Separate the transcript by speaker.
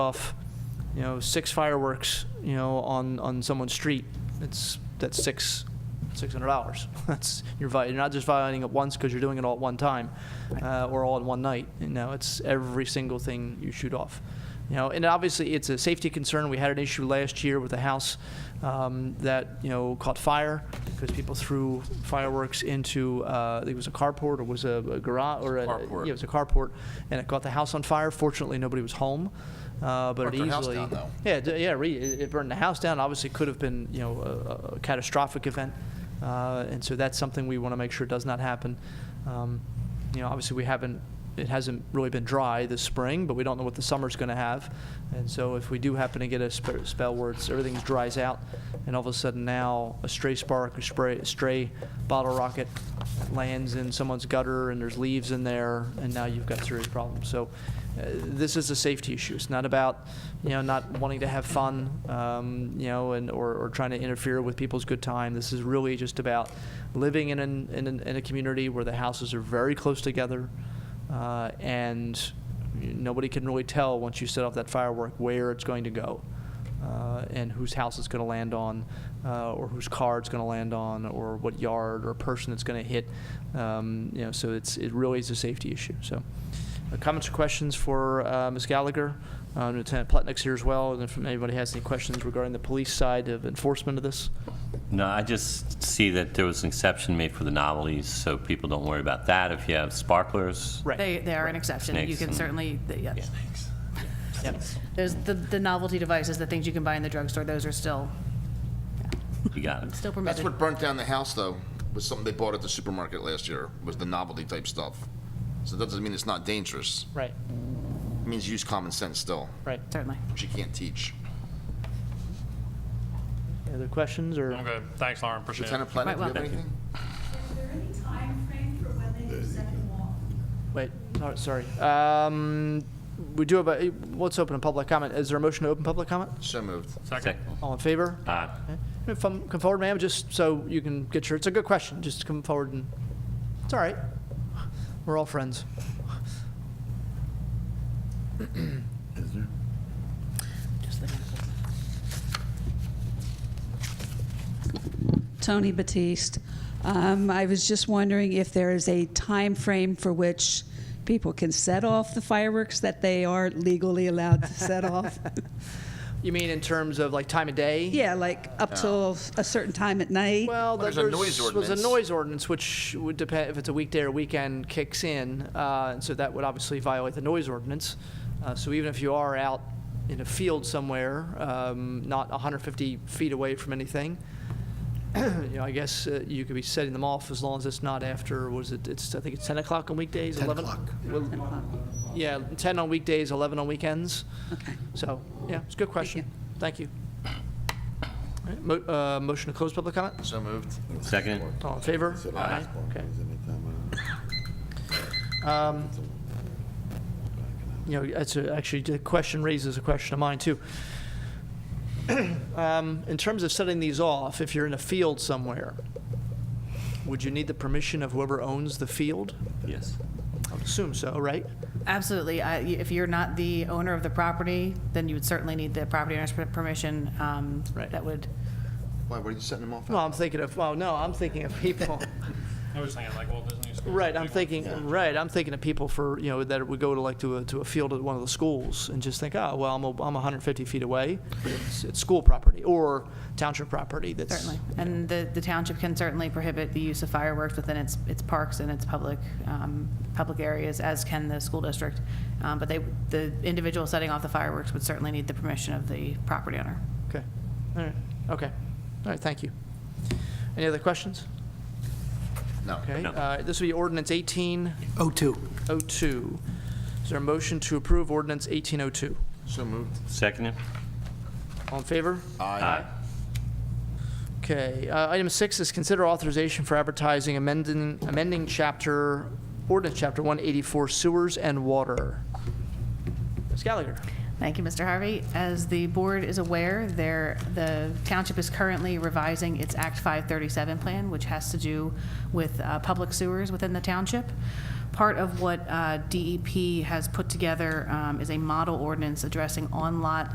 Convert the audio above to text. Speaker 1: off, you know, six fireworks, you know, on, on someone's street, it's, that's six, six hundred dollars. That's, you're vi, you're not just violating it once because you're doing it all at one time, uh, or all in one night. You know, it's every single thing you shoot off. You know, and obviously it's a safety concern. We had an issue last year with a house, um, that, you know, caught fire because people threw fireworks into, uh, I think it was a carport or was a a garage or a.
Speaker 2: Carport.
Speaker 1: Yeah, it was a carport and it caught the house on fire. Fortunately, nobody was home. Uh, but it
Speaker 2: Burnt their
Speaker 1: easily.
Speaker 2: house down, though.
Speaker 1: Yeah, d- yeah, re- it it burned the house down. Obviously, could have been you know a, a catastrophic event, uh, and so that's something we want to make sure does not happen. Um, you know, obviously we haven't. It hasn't really been dry this spring, but we don't know what the summer's going to have. And so, if we do happen to get a sp- spell where it's, everything dries out, and all of a sudden now a stray spark, a spray, a stray bottle rocket lands in someone's gutter, and there's leaves in there, and now you've got serious problems. So, uh, this is a safety issue. It's not about, you know, not wanting to have fun, um, you know, and or, or trying to interfere with people's good time. This is really just about living in an, in, an, in a community where the houses are very close together, uh, and nobody can really tell once you set off that firework where it's going to go. Uh, and whose house it's going to land on, uh, or whose car it's going to land on, or what yard or person it's going to hit. Um, you know, so it's it really is a safety issue. So, uh, Comments or questions for uh, Ms. Gallagher? Uh, Lieutenant Plutnik's here as well, and if anybody has any questions regarding the police side of enforcement of this?
Speaker 3: No, I just see that there was an exception made for the novelties, so people don't worry about that. If you have sparklers,
Speaker 1: Right.
Speaker 4: They, they are an exception. You
Speaker 3: Snakes
Speaker 4: can
Speaker 3: and-
Speaker 4: certainly, the- yeah.
Speaker 1: Yep.
Speaker 4: There's the, the novelty devices, the things you can buy in the drugstore, those are still,
Speaker 3: you got it.
Speaker 4: still
Speaker 2: That's
Speaker 4: permitted.
Speaker 2: what burnt down the house, though, was something they bought at the supermarket last year, was the novelty type stuff. So that doesn't mean it's not dangerous.
Speaker 1: Right,
Speaker 2: It means use common sense still,
Speaker 1: right.
Speaker 4: Certainly.
Speaker 2: which you can't teach.
Speaker 1: Any other questions or?
Speaker 5: I'm good. Thanks, Lauren. Appreciate it.
Speaker 2: Lieutenant Platt, do you
Speaker 4: well-
Speaker 2: have anything?
Speaker 6: Is there any time frame for when they present the law?
Speaker 1: Wait, no, sorry. Um, We do have a, eh, let's open a public comment. Is there a motion to open public comment?
Speaker 2: So moved.
Speaker 5: Second.
Speaker 1: All in favor?
Speaker 3: Aye.
Speaker 1: Okay. If Come come forward, ma'am, just so you can get your, it's a good question. Just come forward and, it's all right. We're all friends.
Speaker 7: Tony Batiste. Um, I was just wondering if there is a time frame for which people can set off the fireworks that they are legally allowed to set off.
Speaker 1: You mean in terms of like time of day?
Speaker 7: yeah, like up till a certain time at night.
Speaker 1: Well,
Speaker 2: there's
Speaker 1: there
Speaker 2: a noise
Speaker 1: was a
Speaker 2: ordinance.
Speaker 1: noise ordinance, which would depend, if it's a weekday or weekend, kicks in, uh, and so that would obviously violate the noise ordinance. Uh, So even if you are out in a field somewhere, um, not 150 feet away from anything, you know, I guess uh, you could be setting them off as long as it's not after, was it, it's, I think it's 10 o'clock on weekdays, 11? Well, Yeah, 10 on weekdays, 11 on weekends.
Speaker 7: Okay.
Speaker 1: So, yeah, it's a good question. Thank you. All right, mo- uh, Motion to close public comment?
Speaker 2: So moved.
Speaker 3: Second?
Speaker 1: All in favor? Aye. Okay. Um, You know, that's a- actually, the question raises a question of mine, too. Um, In terms of setting these off, if you're in a field somewhere, would you need the permission of whoever owns the field?
Speaker 3: Yes.
Speaker 1: I would assume so, right?
Speaker 4: Absolutely. I- If you're not the owner of the property, then you would certainly need the property owner's per- permission. um,
Speaker 1: Right.
Speaker 4: That would,
Speaker 2: Why, were you setting them off?
Speaker 1: Well, I'm thinking of, well, no, I'm thinking of people.
Speaker 5: I was thinking like Walt Disney School.
Speaker 1: Right, I'm thinking, right, I'm thinking of people for, you know, that would go to like to a, to a field at one of the schools and just think, oh, well, I'm, a- I'm 150 feet away. It's, it's school property or township property that's.
Speaker 4: certainly. And the, the township can certainly prohibit the use of fireworks within its, its parks and its public, um, public areas, as can the school district. Um, But they, the individual setting off the fireworks would certainly need the permission of the property owner.
Speaker 1: Okay, all right, okay. All right, thank you. Any other questions?
Speaker 2: No.
Speaker 1: Okay,
Speaker 3: No.
Speaker 1: uh, this will be ordinance 1802.
Speaker 8: Oh two.
Speaker 1: Is there a motion to approve ordinance 1802?
Speaker 2: So moved.
Speaker 3: Second?
Speaker 1: All in favor?
Speaker 2: Aye.
Speaker 1: Okay, uh, item six is consider authorization for advertising amending, amending chapter, ordinance chapter 184 sewers and water. Ms. Gallagher?
Speaker 4: Thank you, Mr. Harvey. As the board is aware, there, the township is currently revising its Act 537 plan, which has to do with uh, public sewers within the township. part E of what uh, DEP has put together um, is a model ordinance addressing on-lot